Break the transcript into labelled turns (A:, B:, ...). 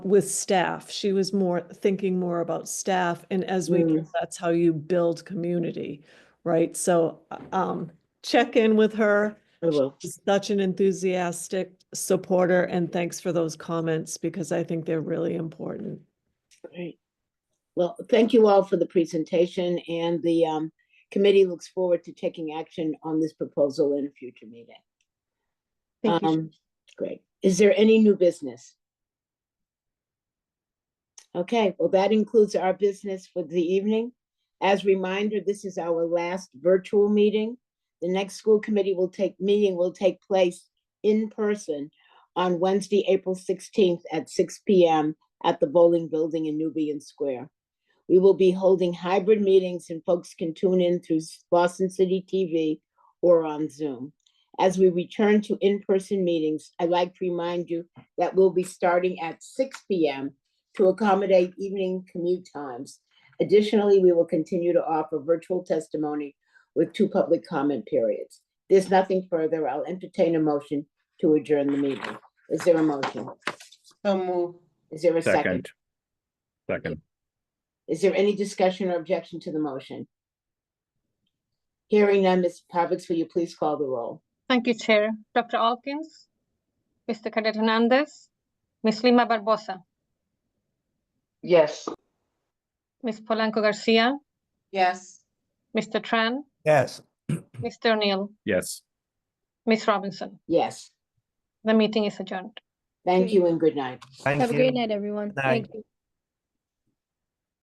A: with staff. She was more thinking more about staff and as we, grow,
B: Mm.
A: that's how you build community, right? So um, check in with her.
C: I will.
A: She's Such an enthusiastic supporter and thanks for those comments because I think they're really important.
C: Great. Well, thank you all for the presentation and the um, committee looks forward to taking action on this proposal in a future meeting.
B: Thank you.
C: Um, Great. Is there any new business? Okay, well, that includes our business for the evening. As reminder, this is our last virtual meeting. The next school committee will take, meeting will take place in person on Wednesday, April sixteenth at six P M at the Bowling Building in Nubian Square. We will be holding hybrid meetings and folks can tune in through Boston City TV or on Zoom. As we return to in-person meetings, I'd like to remind you that we'll be starting at six P M to accommodate evening commute times. Additionally, we will continue to offer virtual testimony with two public comment periods. There's nothing further. I'll entertain a motion to adjourn the meeting. Is there a motion?
B: So move.
C: Is there a second?
D: Second. Second.
C: Is there any discussion or objection to the motion? Hearing none, Ms. Pavix, will you please call the roll?
E: Thank you, Chair. Dr. Alkins, Mr. Cadet Hernandez, Ms. Lima Barbosa,
B: Yes.
E: Ms. Polanco Garcia,
B: Yes.
E: Mr. Tran,
F: Yes.
E: Mr. O'Neill,
D: Yes.
E: Ms. Robinson.
C: Yes,
E: The meeting is adjourned.
C: thank you and good night.
F: Thank
G: Have a
F: you.
G: great night, everyone.
F: Night.
G: Thank you.